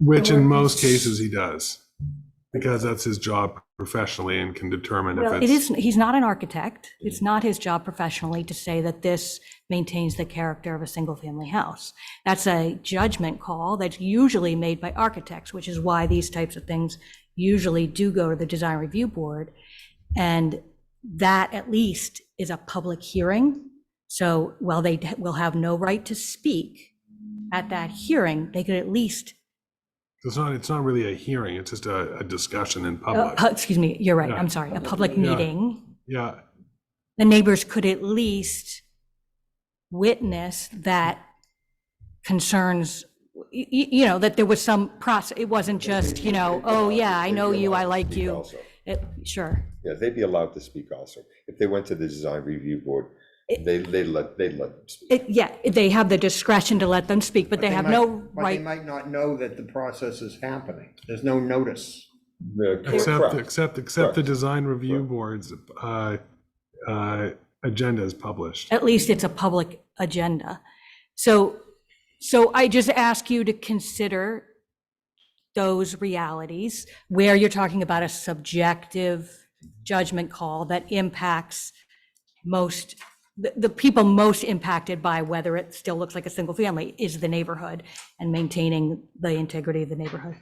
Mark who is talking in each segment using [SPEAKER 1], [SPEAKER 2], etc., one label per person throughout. [SPEAKER 1] Which in most cases he does, because that's his job professionally and can determine
[SPEAKER 2] Well,
[SPEAKER 1] if
[SPEAKER 2] it
[SPEAKER 1] it's.
[SPEAKER 2] isn't, he's not an architect. It's not his job professionally to say that this maintains the character of a single-family house. That's a judgment call that's usually made by architects, which is why these types of things usually do go to the design review board. And that at least is a public hearing. So while they d- will have no right to speak at that hearing, they could at least,
[SPEAKER 1] It's not, it's not really a hearing, it's just a, a discussion in
[SPEAKER 2] oh,
[SPEAKER 1] public.
[SPEAKER 2] hu- excuse me, you're right,
[SPEAKER 1] Yeah.
[SPEAKER 2] I'm sorry, a public
[SPEAKER 1] Yeah.
[SPEAKER 2] meeting.
[SPEAKER 1] Yeah,
[SPEAKER 2] the neighbors could at least witness that concerns, y- y- you know, that there was some process, it wasn't just, you know, oh, yeah, I know you, I like you. It- Sure.
[SPEAKER 3] Yeah, they'd be allowed to speak also. If they went to the design review board, they, they let, they let them speak.
[SPEAKER 2] It- Yeah, they have the discretion to let them speak, but they have
[SPEAKER 4] might-
[SPEAKER 2] no
[SPEAKER 4] But they
[SPEAKER 2] right.
[SPEAKER 4] might not know that the process is happening. There's no notice.
[SPEAKER 3] Yeah, cor-
[SPEAKER 1] except,
[SPEAKER 3] correct.
[SPEAKER 1] except, except the
[SPEAKER 3] Correct.
[SPEAKER 1] design review
[SPEAKER 3] Correct.
[SPEAKER 1] board's, uh, uh, agenda is published.
[SPEAKER 2] At least it's a public agenda. So, so I just ask you to consider those realities where you're talking about a subjective judgment call that impacts most, the, the people most impacted by whether it still looks like a single family is the neighborhood and maintaining the integrity of the neighborhood.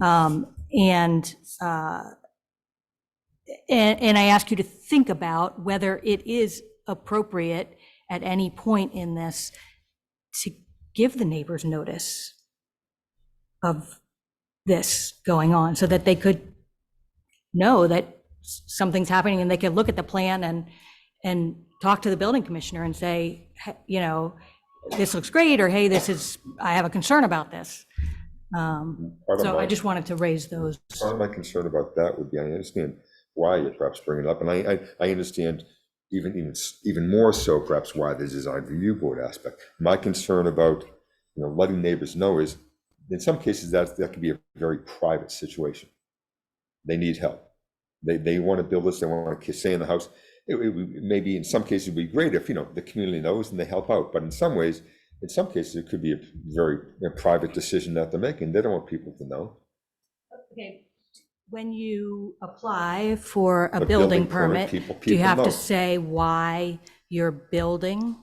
[SPEAKER 2] Um, And, uh, and, and I ask you to think about whether it is appropriate at any point in this to give the neighbors notice of this going on so that they could know that s- something's happening and they could look at the plan and, and talk to the building commissioner and say, "Hey, you know, this looks great, or hey, this is, I have a concern about this. Um,
[SPEAKER 3] Part of
[SPEAKER 2] So I
[SPEAKER 3] my-
[SPEAKER 2] just wanted to raise those.
[SPEAKER 3] Part of my concern about that would be, I understand why you're perhaps bringing it up, and I, I, I understand even, even, s- even more so perhaps why the design review board aspect. My concern about, you know, letting neighbors know is, in some cases, that, that could be a very private situation. They need help. They, they want to build this, they want to stay in the house. It, it would- maybe in some cases it'd be great if, you know, the community knows and they help out, but in some ways, in some cases, it could be a very you know, private decision that they're making. They don't want people to know.
[SPEAKER 2] Okay, when you apply for a
[SPEAKER 3] The
[SPEAKER 2] building permit,
[SPEAKER 3] people-
[SPEAKER 2] do you
[SPEAKER 3] people
[SPEAKER 2] have
[SPEAKER 3] know.
[SPEAKER 2] to say why you're building?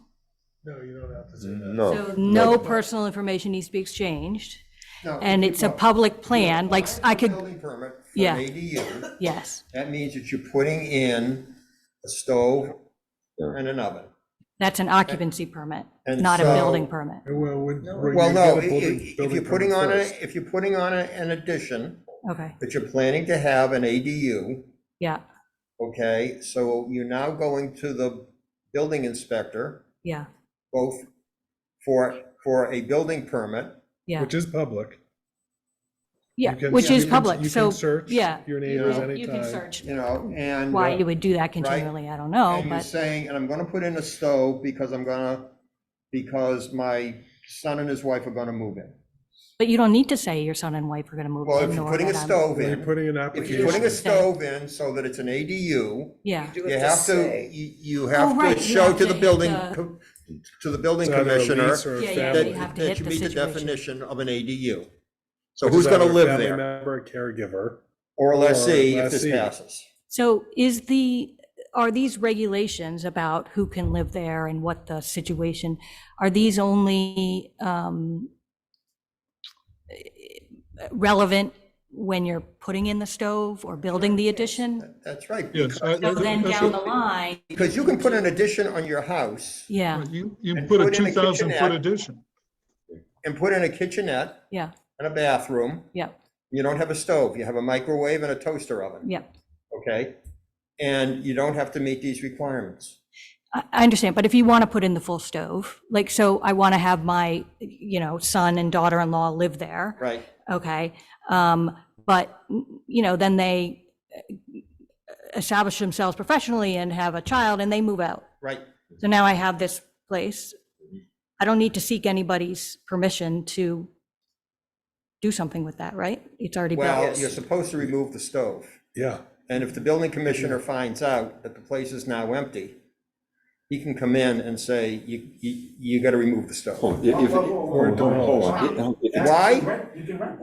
[SPEAKER 1] No, you don't have to
[SPEAKER 3] Oh, No.
[SPEAKER 2] So no personal information needs to be exchanged,
[SPEAKER 4] No,
[SPEAKER 2] and it's a
[SPEAKER 4] people-
[SPEAKER 2] public plan, like, I could,
[SPEAKER 4] Building permit for
[SPEAKER 2] Yeah.
[SPEAKER 4] an ADU,
[SPEAKER 2] yes,
[SPEAKER 4] that means that you're putting in a stove
[SPEAKER 3] Yeah.
[SPEAKER 4] and an oven.
[SPEAKER 2] that's an occupancy permit,
[SPEAKER 4] And
[SPEAKER 2] not a
[SPEAKER 4] so-
[SPEAKER 2] building permit.
[SPEAKER 1] Well, would- would
[SPEAKER 4] Well,
[SPEAKER 1] you
[SPEAKER 4] no,
[SPEAKER 1] get a
[SPEAKER 4] i-
[SPEAKER 1] building-
[SPEAKER 4] i- if
[SPEAKER 1] building
[SPEAKER 4] you're putting
[SPEAKER 1] permit
[SPEAKER 4] on a,
[SPEAKER 1] first?
[SPEAKER 4] if you're putting on a- an addition,
[SPEAKER 2] Okay,
[SPEAKER 4] that you're planning to have an ADU,
[SPEAKER 2] yeah,
[SPEAKER 4] okay? So you're now going to the building inspector,
[SPEAKER 2] yeah,
[SPEAKER 4] both for, for a building permit
[SPEAKER 2] yeah,
[SPEAKER 1] Which is public.
[SPEAKER 2] yeah,
[SPEAKER 1] You can-
[SPEAKER 2] which
[SPEAKER 1] you
[SPEAKER 2] is
[SPEAKER 1] can-
[SPEAKER 2] public,
[SPEAKER 1] you
[SPEAKER 2] so,
[SPEAKER 1] can search
[SPEAKER 2] yeah.
[SPEAKER 1] Your
[SPEAKER 2] You
[SPEAKER 1] neighbors
[SPEAKER 2] can- You can
[SPEAKER 1] anytime.
[SPEAKER 2] search
[SPEAKER 4] you know, and.
[SPEAKER 2] why
[SPEAKER 4] uh,
[SPEAKER 2] you would do that continually, I don't know,
[SPEAKER 4] And you're
[SPEAKER 2] but,
[SPEAKER 4] saying, and I'm gonna put in a stove because I'm gonna, because my son and his wife are gonna move in.
[SPEAKER 2] but you don't need to say your son and wife are gonna move
[SPEAKER 4] Well,
[SPEAKER 2] in,
[SPEAKER 4] if you're
[SPEAKER 2] nor
[SPEAKER 4] putting a
[SPEAKER 2] that I'm-
[SPEAKER 4] stove
[SPEAKER 1] When you're
[SPEAKER 4] in,
[SPEAKER 1] putting an
[SPEAKER 4] if you're putting
[SPEAKER 1] application,
[SPEAKER 4] a stove in so that it's an ADU,
[SPEAKER 2] Yeah.
[SPEAKER 4] you have to, you, you
[SPEAKER 2] Oh,
[SPEAKER 4] have
[SPEAKER 2] right,
[SPEAKER 4] to
[SPEAKER 2] you
[SPEAKER 4] show
[SPEAKER 2] have
[SPEAKER 4] to
[SPEAKER 2] to
[SPEAKER 4] the
[SPEAKER 2] hit
[SPEAKER 4] building,
[SPEAKER 2] the-
[SPEAKER 4] co- to the
[SPEAKER 1] it's
[SPEAKER 4] building
[SPEAKER 1] either a
[SPEAKER 4] commissioner
[SPEAKER 1] lease or a
[SPEAKER 2] Yeah, yeah,
[SPEAKER 1] family.
[SPEAKER 2] you have
[SPEAKER 4] that,
[SPEAKER 2] to
[SPEAKER 4] that
[SPEAKER 2] hit
[SPEAKER 4] you
[SPEAKER 2] the
[SPEAKER 4] meet the
[SPEAKER 2] situation.
[SPEAKER 4] definition of an ADU. So
[SPEAKER 1] which
[SPEAKER 4] who's
[SPEAKER 1] is either
[SPEAKER 4] gonna
[SPEAKER 1] a
[SPEAKER 4] live
[SPEAKER 1] family
[SPEAKER 4] there?
[SPEAKER 1] Member, or caregiver.
[SPEAKER 4] Or lessee
[SPEAKER 1] or
[SPEAKER 4] if this
[SPEAKER 1] lessee.
[SPEAKER 4] passes.
[SPEAKER 2] So is the, are these regulations about who can live there and what the situation, are these only um, relevant when you're putting in the stove or building the addition?
[SPEAKER 4] That's right,
[SPEAKER 5] Yes, I-
[SPEAKER 2] So then down the line,
[SPEAKER 4] because you can put an addition on your house
[SPEAKER 2] yeah,
[SPEAKER 5] You, you
[SPEAKER 4] And
[SPEAKER 5] put a
[SPEAKER 4] put in a
[SPEAKER 5] two thousand foot
[SPEAKER 4] kitchenette.
[SPEAKER 5] addition.
[SPEAKER 4] and put in a kitchenette
[SPEAKER 2] yeah,
[SPEAKER 4] and a bathroom.
[SPEAKER 2] yeah,
[SPEAKER 4] You don't have a stove, you have a microwave and a toaster oven,
[SPEAKER 2] yeah.
[SPEAKER 4] okay? And you don't have to meet these requirements.
[SPEAKER 2] I I understand, but if you want to put in the full stove, like, so I want to have my, you know, son and daughter-in-law live there.
[SPEAKER 4] Right.
[SPEAKER 2] okay? Um, But, you know, then they uh, establish themselves professionally and have a child and they move out.
[SPEAKER 4] Right,
[SPEAKER 2] So now I have this place. I don't need to seek anybody's permission to do something with that, right? It's already
[SPEAKER 4] well,
[SPEAKER 2] built.
[SPEAKER 4] you're supposed to remove the stove.
[SPEAKER 1] Yeah.
[SPEAKER 4] And if the building commissioner finds out that the place is now empty, he can come in and say, you, you, you gotta remove the stove.
[SPEAKER 3] Hold, if- if-
[SPEAKER 6] Whoa, whoa, whoa, whoa,
[SPEAKER 1] Or don't.
[SPEAKER 6] whoa, whoa.
[SPEAKER 4] Why?
[SPEAKER 6] You can rent- You can rent